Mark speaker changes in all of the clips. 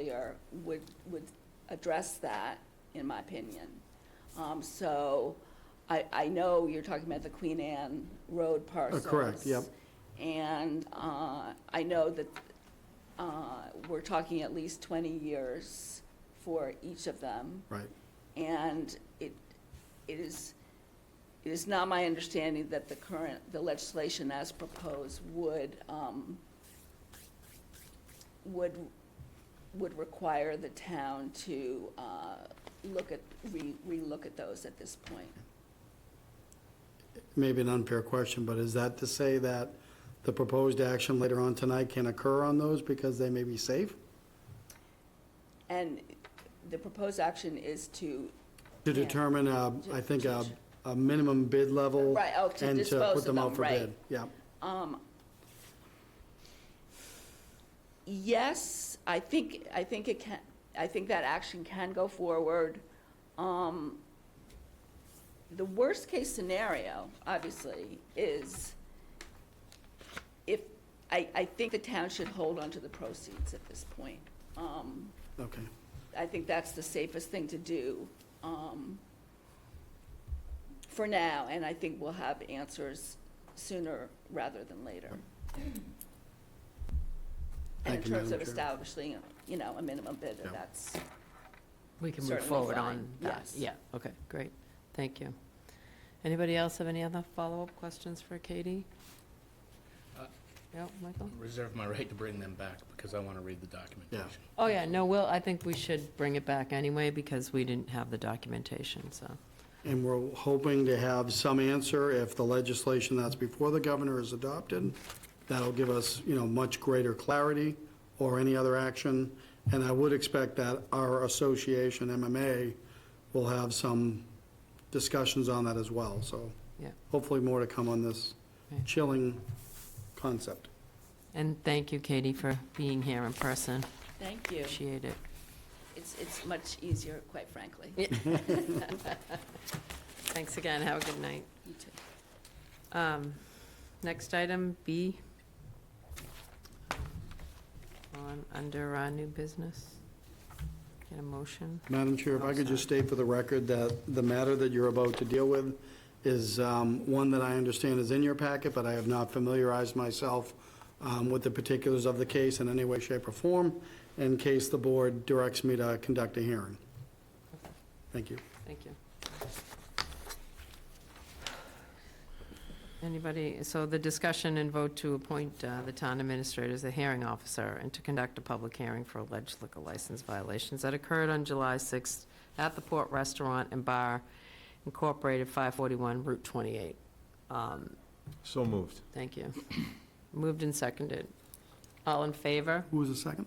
Speaker 1: here would, would address that, in my opinion. Um, so I, I know you're talking about the Queen Anne Road parcels.
Speaker 2: Uh, correct, yep.
Speaker 1: And, uh, I know that, uh, we're talking at least twenty years for each of them.
Speaker 2: Right.
Speaker 1: And it, it is, it is not my understanding that the current, the legislation as proposed would, um, would, would require the town to, uh, look at, re, relook at those at this point.
Speaker 2: Maybe an unfair question, but is that to say that the proposed action later on tonight can occur on those because they may be safe?
Speaker 1: And the proposed action is to,
Speaker 2: To
Speaker 1: Yeah.
Speaker 2: determine, uh, I think, a, a minimum bid level.
Speaker 1: Right, oh, to
Speaker 2: and
Speaker 1: dispose
Speaker 2: put
Speaker 1: of
Speaker 2: out
Speaker 1: them,
Speaker 2: for
Speaker 1: right.
Speaker 2: bid. Yeah,
Speaker 1: um, yes, I think, I think it can, I think that action can go forward. Um, the worst-case scenario, obviously, is if, I, I think the town should hold on to the proceeds at this point. Um,
Speaker 2: okay.
Speaker 1: I think that's the safest thing to do um, for now, and I think we'll have answers sooner rather than later. And in
Speaker 2: Thank you,
Speaker 1: terms
Speaker 2: Madam
Speaker 1: of
Speaker 2: Chair.
Speaker 1: establishing, you know, a minimum bid,
Speaker 2: Yeah.
Speaker 1: that's,
Speaker 3: We can move
Speaker 1: Certainly
Speaker 3: forward
Speaker 1: fine,
Speaker 3: on that.
Speaker 1: yes.
Speaker 3: Yeah, okay, great. Thank you. Anybody else have any other follow-up questions for Katie?
Speaker 4: Uh,
Speaker 3: Yeah, Michael?
Speaker 4: Reserve my right to bring them back because I want to read the documentation.
Speaker 3: Oh, yeah, no, Will, I think we should bring it back anyway because we didn't have the documentation, so.
Speaker 2: And we're hoping to have some answer if the legislation that's before the governor is adopted. That'll give us, you know, much greater clarity or any other action. And I would expect that our association, MMA, will have some discussions on that as well. So
Speaker 3: Yeah.
Speaker 2: hopefully more to come on this
Speaker 3: Right.
Speaker 2: chilling concept.
Speaker 3: And thank you, Katie, for being here in person.
Speaker 1: thank you.
Speaker 3: Appreciate it.
Speaker 1: It's, it's much easier, quite frankly.
Speaker 3: Yeah. Thanks again. Have a good night.
Speaker 1: You too.
Speaker 3: Um, Next item, B. On, under uh, new business. Get a motion.
Speaker 2: Madam Chair, if I could just state for the record that the matter that you're about to deal with is um, one that I understand is in your packet, but I have not familiarized myself um, with the particulars of the case in any way, shape, or form, in case the board directs me to conduct a hearing. Thank you.
Speaker 3: Thank you. Anybody, so the discussion and vote to appoint uh, the town administrator as a hearing officer and to conduct a public hearing for alleged liquor license violations that occurred on July 6th at the Port Restaurant and Bar Incorporated, 541 Route 28. Um,
Speaker 5: So moved.
Speaker 3: Thank you. Moved and seconded. All in favor?
Speaker 2: Who was the second?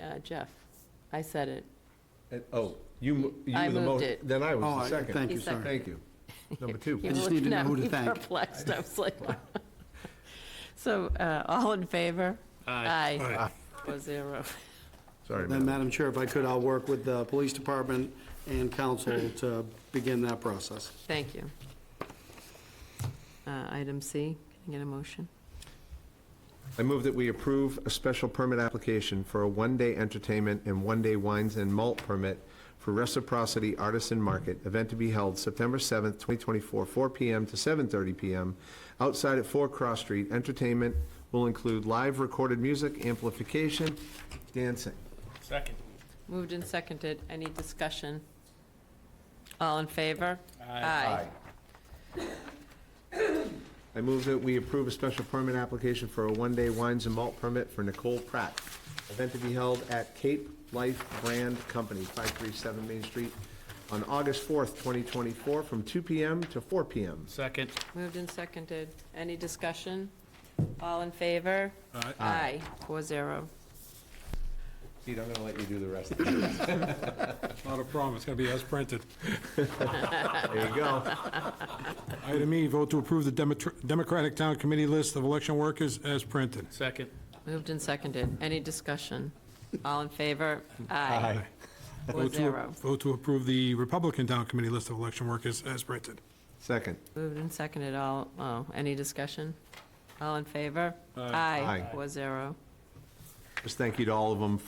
Speaker 3: Uh, Jeff, I said it.
Speaker 5: And- Oh, you, mo- you
Speaker 3: I
Speaker 5: were the mo-
Speaker 3: moved it.
Speaker 5: Then I
Speaker 2: Oh,
Speaker 5: was
Speaker 2: I-
Speaker 5: the second.
Speaker 2: Thank you,
Speaker 3: He's second.
Speaker 2: sorry.
Speaker 5: Thank you. Number two.
Speaker 3: You
Speaker 2: I just
Speaker 3: looked-
Speaker 2: need to know
Speaker 3: no,
Speaker 2: who to
Speaker 3: you
Speaker 2: thank.
Speaker 3: perplexed. I was like, so, uh, all in favor? Aye. Four zero.
Speaker 5: Sorry,
Speaker 2: Then,
Speaker 5: Madam.
Speaker 2: Madam Chair, if I could, I'll work with the police department and council to begin that process.
Speaker 3: Thank you. Uh, Item C, can I get a motion?
Speaker 5: I move that we approve a special permit application for a one-day entertainment and one-day wines and malt permit for Reciprocity Artisan Market, event to be held September 7th, 2024, 4 PM to 7:30 PM, outside at 4 Cross Street. Entertainment will include live recorded music, amplification, dancing.
Speaker 4: Second.
Speaker 3: Moved and seconded. Any discussion? All in favor? Aye.
Speaker 5: I move that we approve a special permit application for a one-day wines and malt permit for Nicole Pratt. Event to be held at Cape Life Brand Company, 537 Main Street, on August 4th, 2024, from 2 PM to 4 PM.
Speaker 4: Second.
Speaker 3: Moved and seconded. Any discussion? All in favor? Aye. Four zero.
Speaker 5: Pete, I'm going to let you do the rest. There you
Speaker 6: Not a problem, it's going to be as printed.
Speaker 5: go.
Speaker 6: Item E, vote to approve the Demetr- Democratic Town Committee list of election workers as printed.
Speaker 4: Second.
Speaker 3: Moved and seconded. Any discussion? All in favor? Aye. Four
Speaker 6: Vote to-
Speaker 3: zero.
Speaker 6: Vote to approve the Republican Town Committee list of election workers as printed.
Speaker 5: Second.
Speaker 3: Moved and seconded. All, oh, any discussion? All in favor?
Speaker 5: Aye.
Speaker 3: Four zero.
Speaker 5: Just thank you to all of them